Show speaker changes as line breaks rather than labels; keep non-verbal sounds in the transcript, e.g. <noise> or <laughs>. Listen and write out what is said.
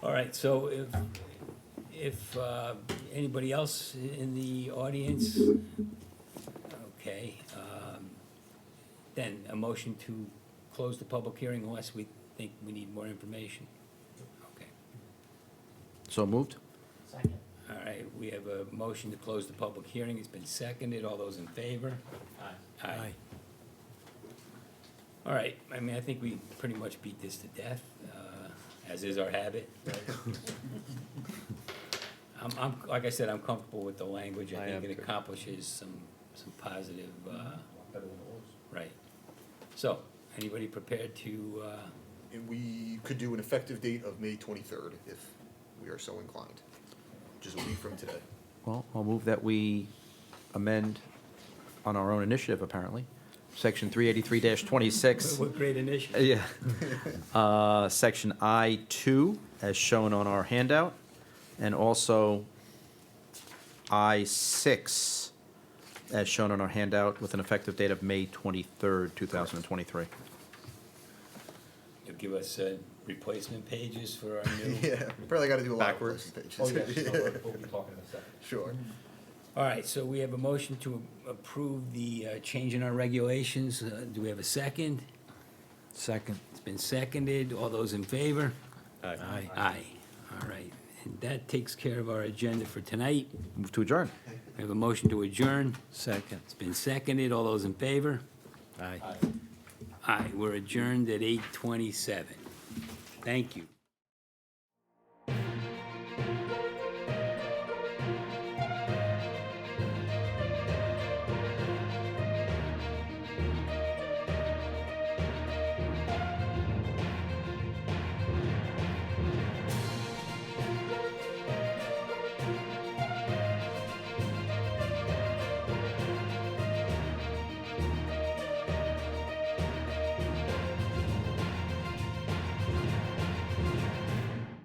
right, so if, if uh, anybody else in the audience, okay, um, then a motion to close the public hearing unless we think we need more information. Okay,
So moved?
Second.
all right, we have a motion to close the public hearing, it's been seconded, all those in favor?
Aye.
Aye. All right, I mean, I think we pretty much beat this to death, uh, as is our habit. I'm, I'm, like I said, I'm comfortable with the language, I
I
think
am
it
too.
accomplishes some, some positive, uh, right. So, anybody prepared to, uh,
And we could do an effective date of May twenty-third if we are so inclined, which is a week from today.
Well, I'll move that we amend on our own initiative, apparently, section 383-26.
what great initiative?
<laughs> Yeah. Uh, Section I2, as shown on our handout, and also I6, as shown on our handout, with an effective date of May 23rd, 2023.
You'll give us, uh, replacement pages for our new.
Yeah, probably gotta do a lot of
Backwards.
person pages.
Oh,
<laughs>
yeah, sure, we'll be talking in a second.
Sure.
All right, so we have a motion to approve the uh, change in our regulations. Uh, Do we have a second? Second. It's been seconded. All those in favor? Aye. Aye. All right. And that takes care of our agenda for tonight.
Move to adjourn.
We have a motion to adjourn. Second. It's been seconded. All those in favor? Aye. Aye. We're adjourned at 8:27. Thank you.